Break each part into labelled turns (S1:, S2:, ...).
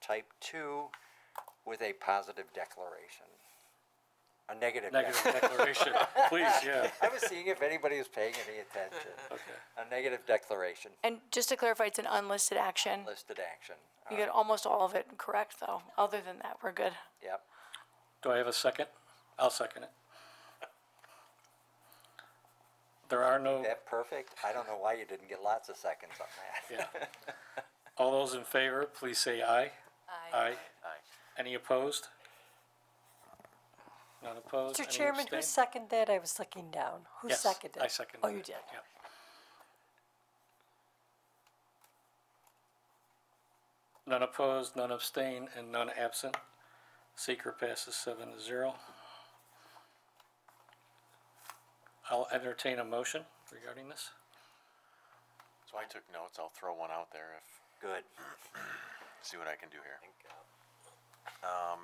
S1: type two with a positive declaration. A negative.
S2: Negative
S1: declaration.
S2: declaration, please, yeah,
S1: I was seeing if anybody was paying any attention.
S2: okay.
S1: A negative declaration,
S3: And just to clarify, it's an unlisted action.
S1: listed action.
S3: You get almost all of it correct, though. Other than that, we're good.
S1: Yep.
S2: Do I have a second? I'll second it. There are no,
S1: That perfect? I don't know why you didn't get lots of seconds on that.
S2: yeah. All those in favor, please say aye. Aye. Any opposed? None opposed?
S4: Mr.
S2: Any
S4: Chairman, who
S2: abstained?
S4: seconded that? I was looking down. Who
S2: Yes,
S4: seconded?
S2: I seconded
S4: Oh, you
S2: it.
S4: did.
S2: Yep. None opposed, none abstain, and none absent. Seeker passes seven to zero. I'll entertain a motion regarding this.
S5: So I took notes. I'll throw one out there if
S1: Good.
S5: see what I can do here. Um,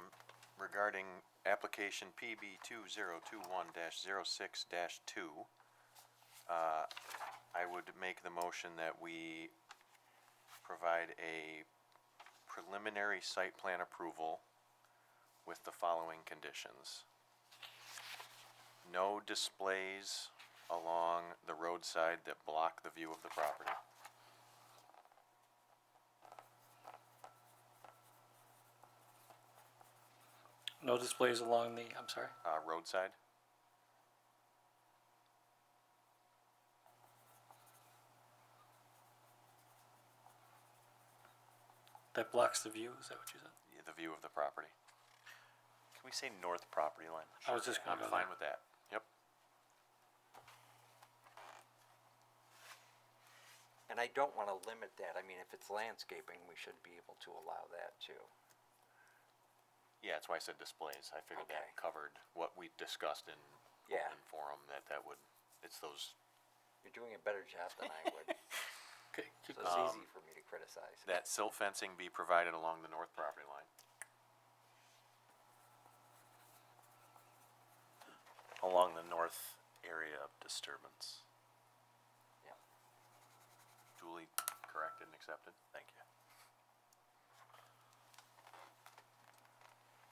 S5: regarding application PB two zero two one 6 two, uh, I would make the motion that we provide a preliminary site plan approval with the following conditions. No displays along the roadside that block the view of the property.
S2: No displays along the, I'm sorry,
S5: uh, roadside.
S2: that blocks the view, is that what you said?
S5: Yeah, the view of the property. Can we say north property line?
S2: I was just gonna
S5: I'm
S2: go
S5: fine
S2: there.
S5: with that. Yep.
S1: And I don't want to limit that. I mean, if it's landscaping, we should be able to allow that too.
S5: Yeah, that's why I said displays. I figured
S1: Okay.
S5: that covered what we discussed in
S1: Yeah.
S5: open forum. That that would. It's those
S1: You're doing a better job than I would,
S2: Okay, keep
S1: so
S2: going.
S1: it's easy for me to criticize.
S5: Um, that silt fencing be provided along the north property line,
S6: along the north area of disturbance.
S1: Yep.
S5: duly corrected and accepted. Thank you.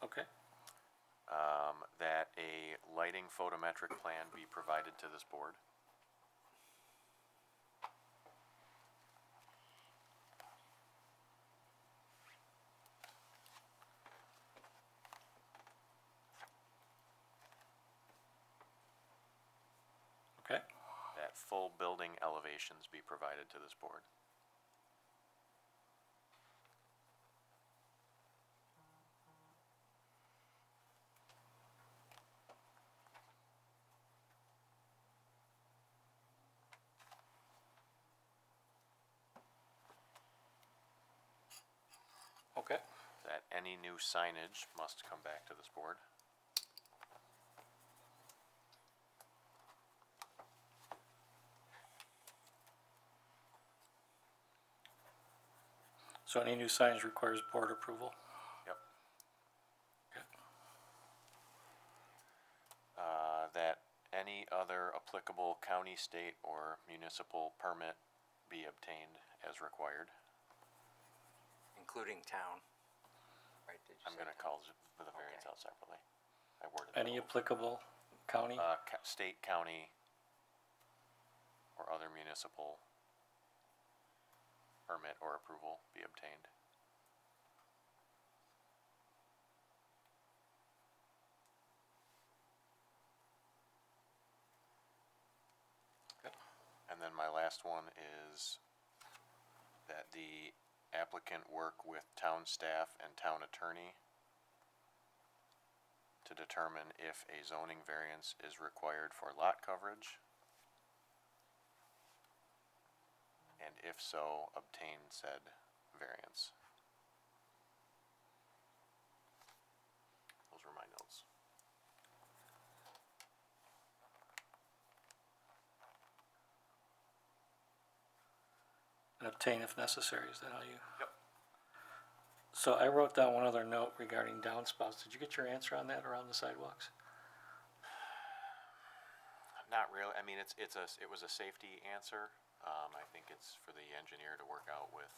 S2: Okay,
S5: Um, that a lighting photometric plan be provided to this board.
S2: okay,
S5: That full building elevations be provided to this board.
S2: okay.
S5: That any new signage must come back to this board.
S2: So any new signs requires board approval?
S5: Yep.
S2: Okay.
S5: Uh, that any other applicable county, state, or municipal permit be obtained as required.
S1: Including town. Right, did you
S5: I'm
S1: say
S5: gonna
S1: town?
S5: call z- for the variance
S1: Okay.
S5: out separately. I worded that. a
S2: Any
S5: little-
S2: applicable county?
S5: Uh, ca- state, county, or other municipal permit or approval be obtained. And then my last one is that the applicant work with town staff and town attorney to determine if a zoning variance is required for lot coverage. And if so, obtain said variance. Those were my notes.
S2: and obtain if necessary, is that how you?
S5: Yep.
S2: So I wrote down one other note regarding downspouts. Did you get your answer on that around the sidewalks?
S5: Not really, I mean, it's, it's a, it was a safety answer. Um, I think it's for the engineer to work out with.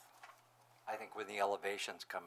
S1: I think when the elevations come